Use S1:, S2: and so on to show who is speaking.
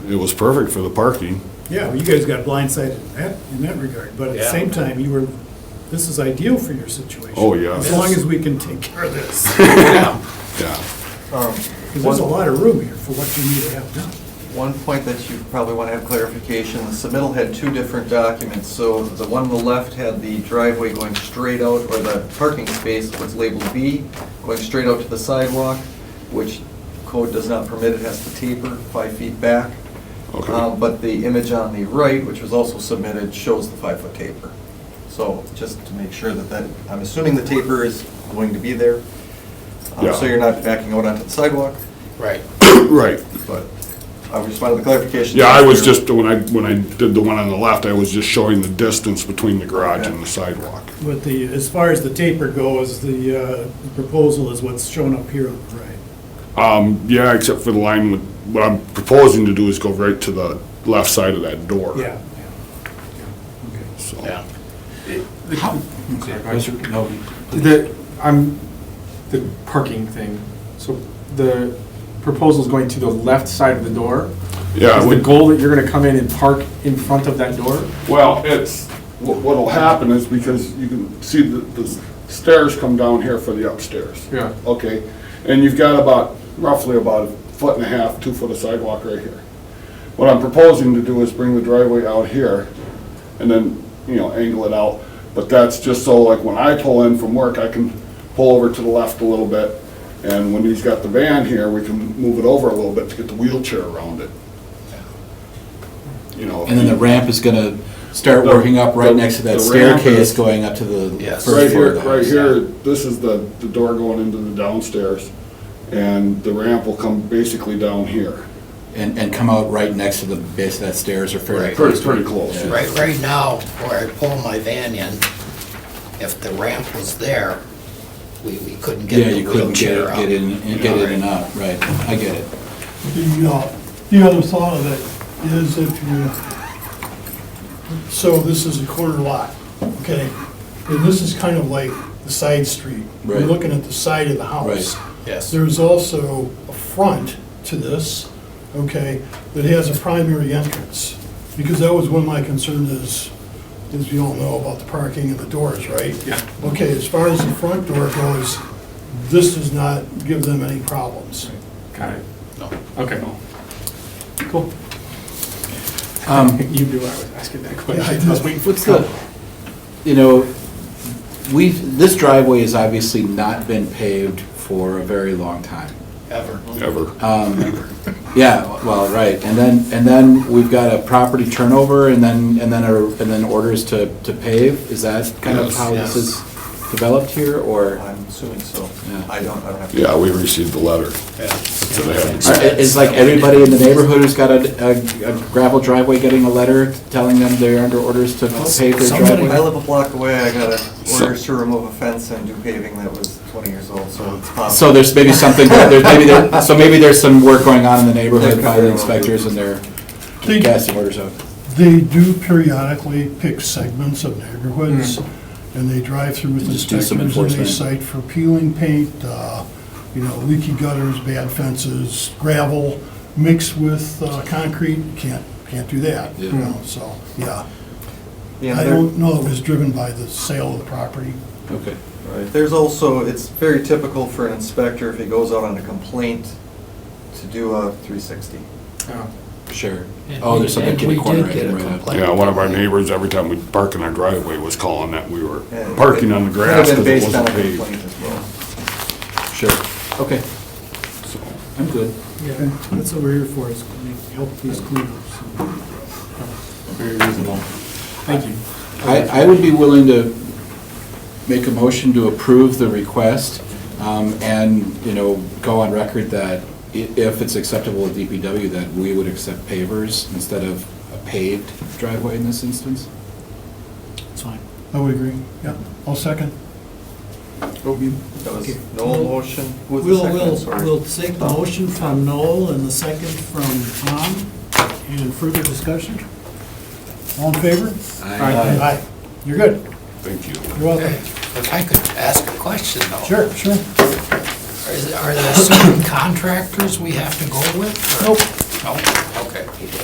S1: it was perfect for the parking.
S2: Yeah, well, you guys got blindsided in that, in that regard, but at the
S3: Yeah.
S2: same time, you were, this is ideal for your situation.
S1: Oh, yeah.
S2: As long as we can take care of this,
S1: Yeah.
S2: because there's a lot of room here for what you need to have done.
S4: One point that you probably want to have clarification, the submittal had two different documents. So the one on the left had the driveway going straight out, or the parking space was labeled B, going straight out to the sidewalk, which code does not permit, it has to taper five feet back.
S1: Okay.
S4: Uh, But the image on the right, which was also submitted, shows the five-foot taper. So just to make sure that that, I'm assuming the taper is going to be there. uh,
S1: Yeah.
S4: So you're not backing out onto the sidewalk,
S3: Right.
S1: Right.
S4: but I just wanted the clarification.
S1: Yeah, I was just, when I, when I did the one on the left, I was just showing the distance between the garage and the sidewalk.
S2: But the, as far as the taper goes, the uh, the proposal is what's shown up here on the right.
S1: Um, yeah, except for the line with, what I'm proposing to do is go right to the left side of that door.
S2: Yeah.
S1: So,
S3: Yeah.
S5: The, I'm, the parking thing, so the proposal's going to the left side of the door?
S1: Yeah,
S5: Is
S1: we-
S5: the goal that you're gonna come in and park in front of that door?
S1: well, it's, what, what'll happen is because you can see the, the stairs come down here for the upstairs.
S5: Yeah.
S1: Okay, and you've got about, roughly about a foot and a half, two foot of sidewalk right here. What I'm proposing to do is bring the driveway out here and then, you know, angle it out. But that's just so like when I pull in from work, I can pull over to the left a little bit. And when he's got the van here, we can move it over a little bit to get the wheelchair around it. You know.
S6: And then the ramp is gonna start
S1: The-
S6: working up right
S1: the-
S6: next to
S1: the
S6: that
S1: ramp
S6: staircase
S1: is-
S6: going up to the
S3: Yes.
S6: first
S1: Right
S6: floor
S1: here,
S6: of the
S1: right
S6: house.
S1: here, this is the, the door going into the downstairs. And the ramp will come basically down here.
S6: And, and come out right next to the base of that stairs or fairly
S3: Right.
S6: close.
S1: Pretty, pretty close.
S6: Yeah.
S3: Right, right now, where I pull my van in, if the ramp was there, we, we couldn't
S6: Yeah,
S3: get the
S6: you couldn't get,
S3: wheelchair
S6: it-
S3: out.
S6: get in, and get in and out, right, I get it.
S7: The, uh, the other thought of it is if you, so this is a corner lot, okay? And this is kind of like the side street. You're
S6: Right.
S7: looking at the side of the house.
S6: Right.
S3: Yes.
S7: There's also a front to this, okay, that has a primary entrance. Because that was one of my concerns is, as we all know about the parking and the doors, right? Yeah. Okay, as far as the front door goes, this does not give them any problems.
S5: Got it.
S3: No.
S5: Okay. Cool. Um, you knew I was asking that question. I was waiting for it
S6: What's
S5: to come.
S6: the, you know, we've, this driveway has obviously not been paved for a very long time.
S3: Ever.
S1: Ever.
S4: Um,
S6: Yeah, well, right, and then, and then we've got a property turnover, and then, and then, a- and then orders to, to pave? Is that kind of
S1: Yes.
S6: how
S3: Yes.
S6: this is developed here, or?
S4: I'm assuming so.
S6: Yeah.
S4: I don't, I don't have to.
S1: Yeah, we received the letter. So they haven't-
S6: Are- Is like everybody in the neighborhood who's got a a- a gravel driveway getting a letter telling them they're under orders to pave their
S4: Somebody- I
S6: driveway?
S4: live a block away, I got a
S1: So-
S4: orders to remove a fence and do paving that was 20 years old, so it's possible.
S6: So there's maybe something, there's maybe there, so maybe there's some work going on in the neighborhood by the inspectors and they're
S7: They-
S6: casting orders out.
S7: They do periodically pick segments of neighborhoods, and they drive through with
S6: And just do
S7: inspectors,
S6: some
S7: and they
S6: enforcement.
S7: cite for peeling paint, uh, you know, leaky gutters, bad fences, gravel mixed with uh, concrete, can't, can't do that, you
S6: Yeah.
S7: know, so, yeah.
S4: Yeah,
S7: I
S4: there-
S7: don't know it was driven by the sale of the property.
S6: Okay.
S4: Right. There's also, it's very typical for an inspector, if he goes out on a complaint, to do a 360.
S5: Oh.
S6: Sure. Oh, there's something
S3: And
S6: in
S3: we
S6: the corner.
S3: did
S6: I
S3: get
S6: didn't
S3: a
S6: write up.
S3: complaint.
S1: Yeah, one of our neighbors, every time we park in our driveway, was calling that we were
S4: And
S1: parking on the
S4: it could have
S1: grass
S4: been
S1: because it
S4: based on
S1: wasn't
S4: a
S1: paved.
S4: complaint as well.
S6: Sure, okay,
S1: so.
S6: I'm good.
S2: Yeah, that's what we're here for, is to help these cleanups.
S6: Very reasonable.
S5: Thank you.
S6: I, I would be willing to make a motion to approve the request um, and, you know, go on record that i- if it's acceptable at DPW, that we would accept pavers instead of a paved driveway in this instance.
S2: It's fine.
S7: I would agree, yeah. I'll second.
S4: That was
S2: Okay.
S4: no motion. Who was the
S2: We'll,
S4: second?
S2: we'll,
S4: Sorry.
S2: we'll take the motion from Noel and the second from Tom. And further discussion?
S7: All in favor?
S5: Aye.
S7: Aye. You're good.
S1: Thank you.
S7: You're welcome.
S3: If I could ask a question though.
S7: Sure, sure.
S3: Are there- Are there certain contractors we have to go with? or-
S7: Nope.
S3: No? Okay.